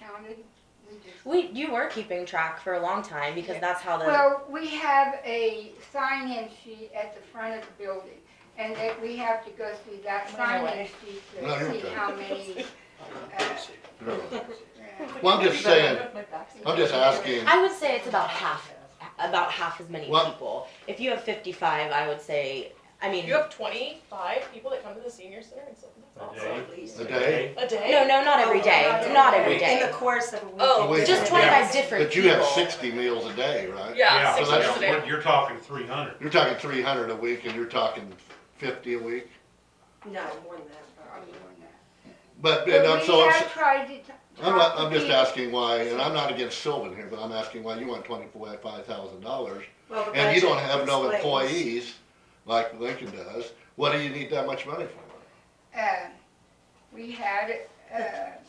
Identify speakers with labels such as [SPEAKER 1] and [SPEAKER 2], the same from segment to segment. [SPEAKER 1] counted? We just-
[SPEAKER 2] We you were keeping track for a long time because
[SPEAKER 1] Yeah.
[SPEAKER 2] that's how the
[SPEAKER 1] Well, we have a sign-in sheet at the front of the building, and that we have to go through that
[SPEAKER 3] Wait,
[SPEAKER 1] sign-in
[SPEAKER 3] wait.
[SPEAKER 1] sheet
[SPEAKER 4] No,
[SPEAKER 1] to
[SPEAKER 4] you're
[SPEAKER 1] see
[SPEAKER 4] okay.
[SPEAKER 1] how many. uh,
[SPEAKER 4] No.
[SPEAKER 1] yeah.
[SPEAKER 4] Well, I'm just saying,
[SPEAKER 3] My back's-
[SPEAKER 4] I'm just asking,
[SPEAKER 2] I would say it's about half about half as many
[SPEAKER 4] Well-
[SPEAKER 2] people. If you have 55, I would say I mean
[SPEAKER 3] You have twenty-five people that come to the senior center and stuff. That's
[SPEAKER 5] A
[SPEAKER 4] a
[SPEAKER 5] day.
[SPEAKER 3] awesome.
[SPEAKER 4] day?
[SPEAKER 3] A day?
[SPEAKER 2] No, no, not
[SPEAKER 6] Oh,
[SPEAKER 2] every day. Not every
[SPEAKER 6] In the
[SPEAKER 2] day.
[SPEAKER 6] course of a week.
[SPEAKER 3] Oh,
[SPEAKER 4] Wait,
[SPEAKER 2] Just
[SPEAKER 4] yeah.
[SPEAKER 2] 25 different
[SPEAKER 4] But you have
[SPEAKER 2] people.
[SPEAKER 4] sixty meals a day, right?
[SPEAKER 3] Yeah, six
[SPEAKER 4] so
[SPEAKER 3] hours
[SPEAKER 4] that's
[SPEAKER 3] a day.
[SPEAKER 5] what- You're talking three hundred.
[SPEAKER 4] You're talking three hundred a week and you're talking fifty a week,
[SPEAKER 6] No, more
[SPEAKER 1] Are
[SPEAKER 6] than that.
[SPEAKER 1] you on that?
[SPEAKER 4] but, and I'm
[SPEAKER 1] But we
[SPEAKER 4] so, I'm,
[SPEAKER 1] have tried to. t-
[SPEAKER 4] I'm,
[SPEAKER 1] talk
[SPEAKER 4] not-
[SPEAKER 1] to
[SPEAKER 4] I'm just
[SPEAKER 1] people.
[SPEAKER 4] asking why, and I'm not against Sylvan here, but I'm asking why you want twenty-four, five thousand dollars
[SPEAKER 6] Well, the
[SPEAKER 4] and you don't
[SPEAKER 6] budget
[SPEAKER 4] have no
[SPEAKER 6] explains.
[SPEAKER 4] employees like Lincoln does, what do you need that much money for?
[SPEAKER 1] Uh, We had, uh,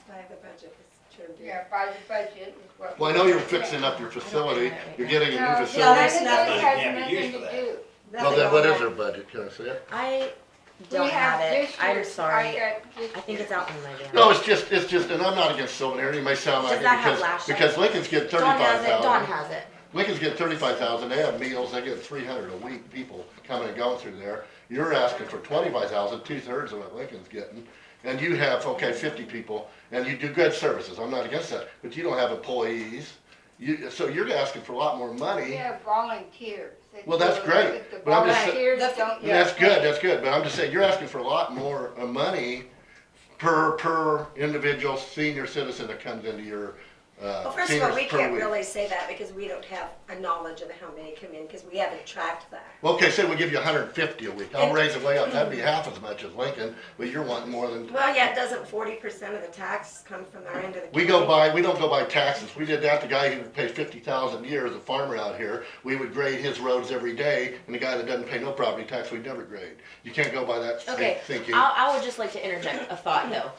[SPEAKER 6] By the budget, it's turned in.
[SPEAKER 1] yeah, by the budget is what.
[SPEAKER 4] Well, I
[SPEAKER 1] we
[SPEAKER 4] know you're
[SPEAKER 1] were saying.
[SPEAKER 4] fixing up your facility, you're getting a
[SPEAKER 1] No,
[SPEAKER 4] new
[SPEAKER 6] No,
[SPEAKER 4] facility.
[SPEAKER 6] there's
[SPEAKER 1] none of
[SPEAKER 6] nothing.
[SPEAKER 1] this has
[SPEAKER 7] Can't be
[SPEAKER 1] nothing
[SPEAKER 7] used
[SPEAKER 1] to
[SPEAKER 7] for that.
[SPEAKER 1] do.
[SPEAKER 4] Well,
[SPEAKER 6] Nothing
[SPEAKER 4] then what
[SPEAKER 6] on
[SPEAKER 4] is
[SPEAKER 6] that.
[SPEAKER 4] their budget, can I see it?
[SPEAKER 2] I
[SPEAKER 1] We
[SPEAKER 2] don't have it.
[SPEAKER 1] this
[SPEAKER 2] I'm
[SPEAKER 1] year's-
[SPEAKER 2] sorry. I,
[SPEAKER 1] got this
[SPEAKER 2] think it's
[SPEAKER 1] year's.
[SPEAKER 2] out in my van.
[SPEAKER 4] No, it's just, it's just, and I'm not against Sylvan here, you may sound
[SPEAKER 2] Does
[SPEAKER 4] like it
[SPEAKER 2] that have
[SPEAKER 4] because,
[SPEAKER 2] last year?
[SPEAKER 4] because Lincoln's getting
[SPEAKER 2] Dawn
[SPEAKER 4] thirty-five
[SPEAKER 2] has it. Dawn
[SPEAKER 4] thousand.
[SPEAKER 2] has it.
[SPEAKER 4] Lincoln's getting thirty-five thousand, they have meals, they get three hundred a week, people coming and going through there. You're asking for twenty-five thousand, two-thirds of what Lincoln's getting, and you have, okay, fifty people, and you do good services, I'm not against that, but you don't have employees. You, so you're asking for a lot more
[SPEAKER 1] We
[SPEAKER 4] money.
[SPEAKER 1] have volunteers. that
[SPEAKER 4] Well, that's
[SPEAKER 1] do it,
[SPEAKER 4] great,
[SPEAKER 1] The
[SPEAKER 4] but I'm just-
[SPEAKER 1] volunteers
[SPEAKER 6] That's-
[SPEAKER 1] don't
[SPEAKER 4] Yeah, That's
[SPEAKER 1] get
[SPEAKER 4] good,
[SPEAKER 1] paid.
[SPEAKER 4] that's good, but I'm just saying, you're asking for a lot more uh, money per, per individual senior citizen that comes into your, uh,
[SPEAKER 6] Well, first of all, we
[SPEAKER 4] seniors per
[SPEAKER 6] can't
[SPEAKER 4] week.
[SPEAKER 6] really say that because we don't have a knowledge of how many come in, because we haven't tracked that.
[SPEAKER 4] Well, Okay, say we give you hundred and fifty a week, I'll
[SPEAKER 6] And-
[SPEAKER 4] raise it way up, that'd be half as much as Lincoln, but you're wanting more than,
[SPEAKER 6] Well, yeah, doesn't forty percent of the tax come from our end of the county?
[SPEAKER 4] we go by, we don't go by taxes, we did that, the guy who pays fifty thousand a year is a farmer out here, we would grade his roads every day, and the guy that doesn't pay no property tax, we'd never grade. You can't go by that
[SPEAKER 2] Okay.
[SPEAKER 4] thi- thinking.
[SPEAKER 2] I, I would just like to interject a thought though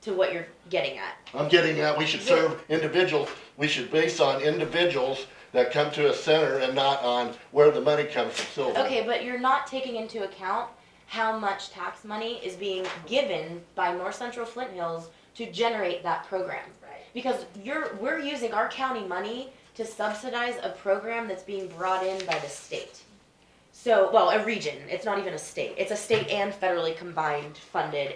[SPEAKER 2] to what you're getting at.
[SPEAKER 4] I'm getting that we should serve individuals, we should base on individuals that come to a center and not on where the money comes from Sylvan.
[SPEAKER 2] Okay, but you're not taking into account how much tax money is being given by North Central Flint Hills to generate that program.
[SPEAKER 6] Right.
[SPEAKER 2] Because you're, we're using our county money to subsidize a program that's being brought in by the state. So, well, a region, it's not even a state, it's a state and federally combined funded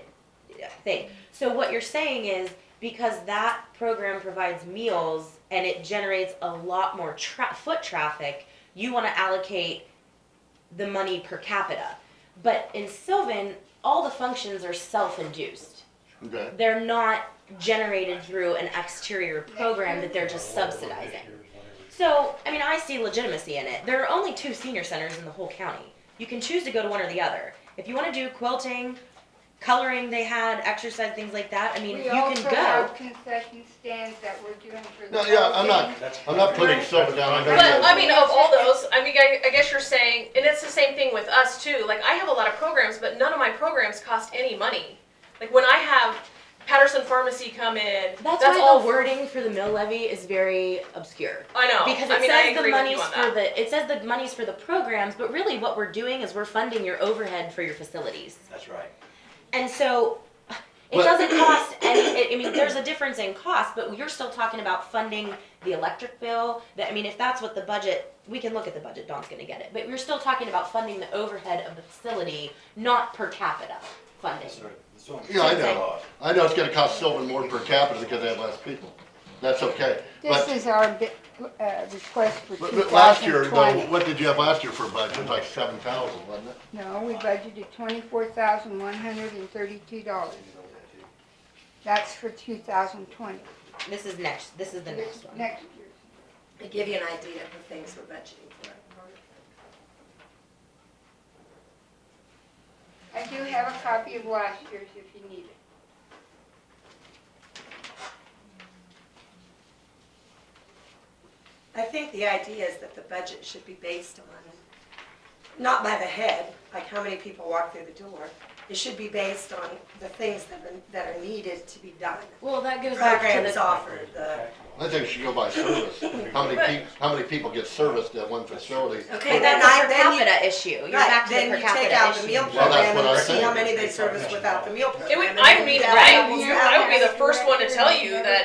[SPEAKER 2] thing. So what you're saying is, because that program provides meals and it generates a lot more tra- foot traffic, you wanna allocate the money per capita. But in Sylvan, all the functions are self-induced.
[SPEAKER 4] Okay,
[SPEAKER 2] They're not generated through an exterior program that they're just subsidizing. So, I mean, I see legitimacy in it. There are only two senior centers in the whole county. You can choose to go to one or the other. If you want to do quilting, coloring, they had exercise things like that. I mean, you can
[SPEAKER 1] We also have
[SPEAKER 2] go.
[SPEAKER 1] concession stands that we're doing for the.
[SPEAKER 4] no, yeah, I'm not,
[SPEAKER 7] That's-
[SPEAKER 4] I'm not putting Sylvan down, I know you
[SPEAKER 3] But I
[SPEAKER 4] guys-
[SPEAKER 3] mean, of all those, I mean, I, I guess you're saying, and it's the same thing with us too. Like I have a lot of programs, but none of my programs cost any money. Like when I have Patterson Pharmacy come in,
[SPEAKER 2] That's, why
[SPEAKER 3] all
[SPEAKER 2] the wording for the mill levy is very obscure.
[SPEAKER 3] I know
[SPEAKER 2] Because
[SPEAKER 3] Oh, I
[SPEAKER 2] it
[SPEAKER 3] mean, I
[SPEAKER 2] says
[SPEAKER 3] agree
[SPEAKER 2] the
[SPEAKER 3] with you
[SPEAKER 2] money's
[SPEAKER 3] on
[SPEAKER 2] for
[SPEAKER 3] that.
[SPEAKER 2] the, it says the money's for the programs, but really what we're doing is we're funding your overhead for your facilities.
[SPEAKER 7] That's right.
[SPEAKER 2] And so, it
[SPEAKER 4] But-
[SPEAKER 2] doesn't cost any, I- I mean, there's a difference in cost, but you're still talking about funding the electric bill, that, I mean, if that's what the budget, we can look at the budget, Dawn's gonna get it, but you're still talking about funding the overhead of the facility, not per capita funding.
[SPEAKER 7] That's right. That's what I'm
[SPEAKER 4] Yeah, I
[SPEAKER 7] saying.
[SPEAKER 4] know. I know it's gonna cost Sylvan more per capita because they have less people, that's okay,
[SPEAKER 1] This
[SPEAKER 4] but,
[SPEAKER 1] is our bi- uh, request for
[SPEAKER 4] but but last year, though,
[SPEAKER 1] 2020.
[SPEAKER 4] what did you have last year for a budget, like seven thousand, wasn't it?
[SPEAKER 1] No, we budgeted twenty-four thousand one hundred and thirty-two dollars. That's for two thousand twenty.
[SPEAKER 2] This is next, this is the next one.
[SPEAKER 1] Next year.
[SPEAKER 6] To give you an idea of the things we're budgeting for.
[SPEAKER 1] I do have a copy of last year's if you need it.
[SPEAKER 6] I think the idea is that the budget should be based on, not by the head, like how many people walk through the door. It should be based on the things that are, that are needed to be done.
[SPEAKER 2] Well, that goes back to
[SPEAKER 6] Programs
[SPEAKER 2] the,
[SPEAKER 6] offered, the,
[SPEAKER 4] I think it should go by service, how many people, how many people get serviced at one facility?
[SPEAKER 6] okay,
[SPEAKER 2] but
[SPEAKER 6] then
[SPEAKER 2] that's
[SPEAKER 6] I,
[SPEAKER 2] a per
[SPEAKER 6] then you.
[SPEAKER 2] capita issue, you're
[SPEAKER 6] right,
[SPEAKER 2] back to the per capita issue.
[SPEAKER 6] Then you take out the meal
[SPEAKER 4] Well, that's
[SPEAKER 6] program
[SPEAKER 4] what I
[SPEAKER 6] and see how
[SPEAKER 4] said.
[SPEAKER 6] many they service without the meal program.
[SPEAKER 3] It would,
[SPEAKER 6] and
[SPEAKER 3] I
[SPEAKER 6] then
[SPEAKER 3] mean,
[SPEAKER 6] that
[SPEAKER 3] I
[SPEAKER 6] doubles
[SPEAKER 3] would,
[SPEAKER 6] your
[SPEAKER 3] I would be
[SPEAKER 6] hours.
[SPEAKER 3] the first one to tell you that